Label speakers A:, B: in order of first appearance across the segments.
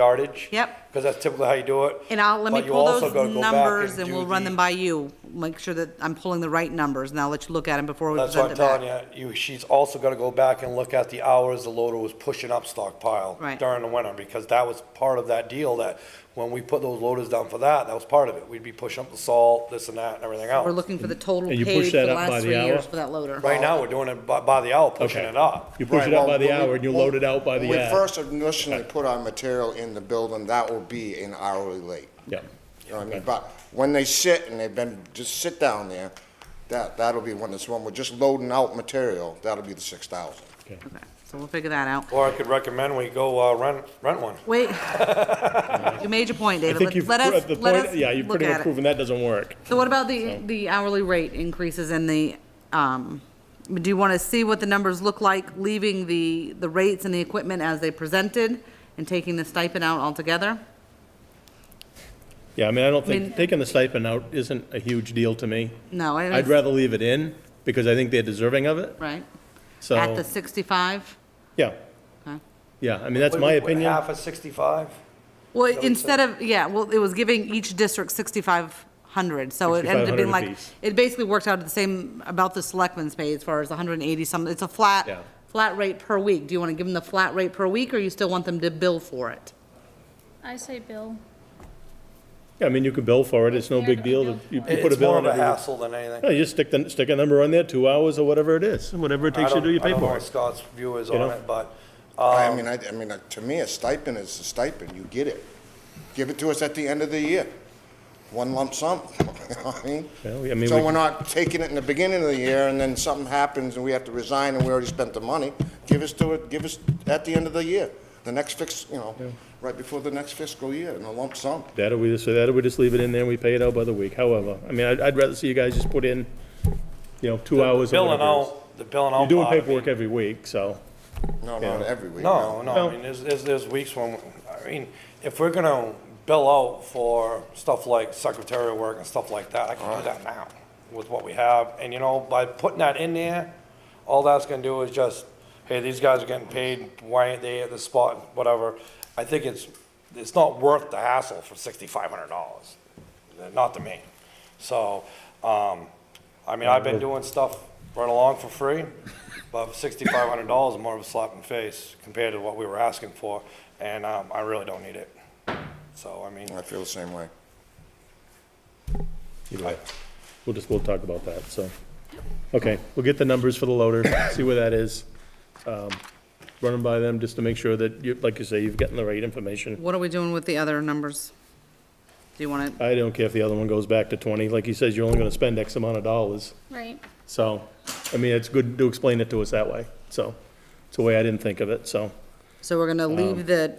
A: yardage.
B: Yep.
A: Because that's typically how you do it.
B: And I'll, let me
A: But you
B: pull
A: also
B: those
A: gotta go back
B: numbers and
A: do
B: we'll run
A: the-
B: them by you. Make sure that I'm pulling the right numbers and I'll let you look at them before we
A: That's what
B: present
A: I'm
B: it back.
A: telling you, you, she's also gonna go back and look at the hours the loader was pushing up stockpile
B: Right.
A: during the winter, because that was part of that deal, that when we put those loaders down for that, that was part of it. We'd be pushing up the salt, this and that, and everything
B: We're
A: else.
B: looking for the total
C: And you
B: paid
C: push
B: for
C: that
B: the
C: up by
B: last
C: the
B: three years
C: hour?
B: for that loader.
A: Right now, we're doing it by, by the hour, pushing
C: Okay.
A: it up.
C: You push it
A: Right,
C: up by
A: well,
C: the
A: when we-
C: hour and you load it out by
D: When
C: the
D: we
C: hour.
D: first initially put our material in the building, that will be an hourly rate.
C: Yeah.
D: You know what I mean? But when they sit and they've been, just sit down there, that, that'll be when it's, when we're just loading out material, that'll be the six thousand.
B: Okay, So we'll figure that out.
A: Or I could recommend we go, uh, rent, rent one.
B: Wait. You made your point,
C: I
B: David.
C: think
B: Let-
C: you've,
B: Let
C: at
B: us,
C: the
B: let us
C: point, yeah, you've
B: look
C: pretty
B: at
C: much
B: it.
C: proven that doesn't work.
B: So what about the, the hourly rate increases and the, um, do you want to see what the numbers look like, leaving the, the rates and the equipment as they presented and taking the stipend out altogether?
C: Yeah, I mean, I don't
B: mean-
C: think, taking the stipend out isn't a huge deal to me.
B: No, I-
C: I'd rather leave it in because I think they're deserving of it,
B: Right? At
C: so,
B: the 65?
C: yeah.
B: Okay.
C: Yeah, I mean, that's
A: Wait,
C: my
A: wait, wait,
C: opinion.
A: Half of sixty-five?
B: Well, instead of, yeah, well, it was giving each district 6,500, so it ended up being
C: 6,500
B: like,
C: apiece.
B: it basically worked out the same, about the selectmen's pay as far as 180 some, it's a
C: Yeah.
B: flat, flat rate per week. Do you want to give them the flat rate per week, or you still want them to bill for it?
E: I say bill.
C: Yeah, I mean, you could bill for it, it's no big deal. to- You you put a
A: It's
C: bill
A: more
C: on
A: of a
C: it.
A: hassle than anything.
C: No, you just stick the, stick a number on there, two hours or whatever it is, whatever it
A: I
C: takes you to
A: don't-
C: do your
A: I don't know what
C: paperwork.
A: Scott's view is
C: You
A: on
C: know?
A: it, but,
C: Um,
D: I mean, I, I mean, uh, to me, a stipend is a stipend, you get it. Give it to us at the end of the year, one lump sum, you know what I mean?
C: Well, yeah, I mean, we-
D: So we're not taking it in the beginning of the year, and then something happens, and we have to resign, and we already spent the money. Give us to it, give us at the end of the year, the next fix, you know, right before the next fiscal year, in a lump sum.
C: That or we just, so that or we just leave it in there and we pay it out by the week, however. I mean, I'd, I'd rather see you guys just put in, you know, two hours or
A: billing
C: whatever it is.
A: out, the billing out.
C: You're doing
A: part of it.
C: paperwork every week, so,
D: No, not every week.
A: No, no,
C: No.
A: I mean, there's, there's, there's weeks when, I mean, if we're gonna bill out for stuff like secretarial work and stuff like that, I can do that now with what we have, and you know, by putting that in there, all that's gonna do is just, hey, these guys are getting paid, why ain't they at this spot, whatever. I think it's, it's not worth the hassle for sixty-five hundred dollars, not to me. So, um, I mean, I've been doing stuff right along for free, but sixty-five hundred dollars is more of a slap in the face compared to what we were asking for, and, um, I really don't need it. So, I mean,
D: I feel the same way.
C: either way. We'll just, we'll talk about that, so. Okay, we'll get the numbers for the loader, see where that is. Um, Run them by them just to make sure that you, like you say, you've gotten the right information.
B: What are we doing with the other numbers? Do you want to,
C: I don't care if the other one goes back to twenty, like he says, you're only gonna spend X amount of dollars.
E: Right.
C: So, I mean, it's good to explain it to us that way, so. It's a way I didn't think of it, so.
B: so we're going to leave the,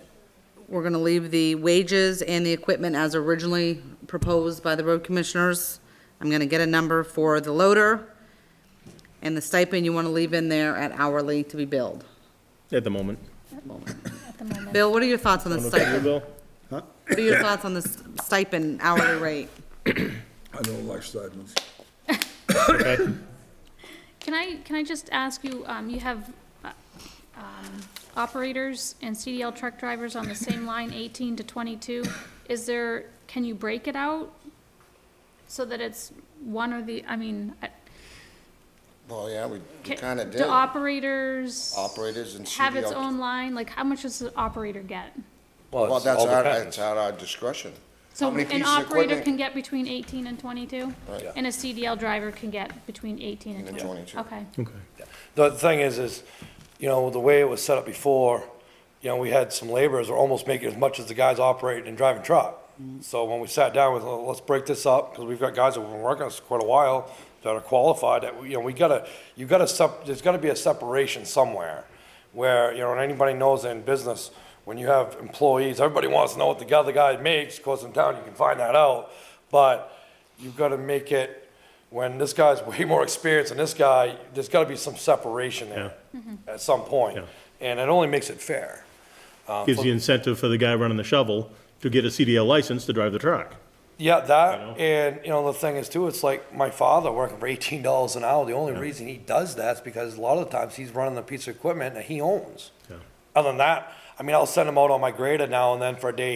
B: we're going to leave the wages and the equipment as originally proposed by the road commissioners. I'm going to get a number for the loader. And the stipend you want to leave in there at hourly to be billed.
C: At the moment.
E: At the moment,
B: Bill, what are your thoughts on the
C: Okay,
B: stipend?
C: Bill?
B: What are your thoughts on the s- stipend hourly rate?
F: I don't like stipends.
C: Okay.
E: can I, can I just ask you, um, you have, uh, um, operators and CDL truck drivers on the same line, eighteen to twenty-two. Is there, can you break it out? So that it's one or the, I mean, I-
D: Well, yeah, we
E: ca-
D: kind of
E: do
D: did.
E: operators
D: Operators and E
E: have its
D: CDL
E: own line? Like, how much does the operator get?
D: Well,
A: it's
D: that's
A: all
D: our,
A: depends.
D: that's at our discretion. How
E: So
D: many
E: an
D: pieces of
E: operator
D: equipment?
E: can get between eighteen and twenty-two? And a CDL driver can get between eighteen and
D: And
E: twenty-two?
D: 22.
E: Okay.
A: The thing is, is, you know, the way it was set up before, you know, we had some laborers were almost making as much as the guys operating and driving truck. So when we sat down with, "Well, let's break this up, because we've got guys that have been working us quite a while that are qualified, that, we- you know, we gotta, you gotta, sep- there's gotta be a separation somewhere. Where, you know, and anybody knows in business, when you have employees, everybody wants to know what the other guy makes, of course, in town, you can find that out. But you've gotta make it, when this guy's way more experienced than this guy, there's gotta be some separation there Mm-hmm. at some point. And it only makes it fair.
C: gives you incentive for the guy running the shovel to get a CDL license to drive the truck.
A: Yeah,
C: know?
A: that, and, you know, the thing is too, it's like my father working for eighteen dollars an hour, the only reason he does that is because a lot of the times he's running the piece of equipment that he owns. Other than that, I I mean, I'll send them out on my grader now and then for a day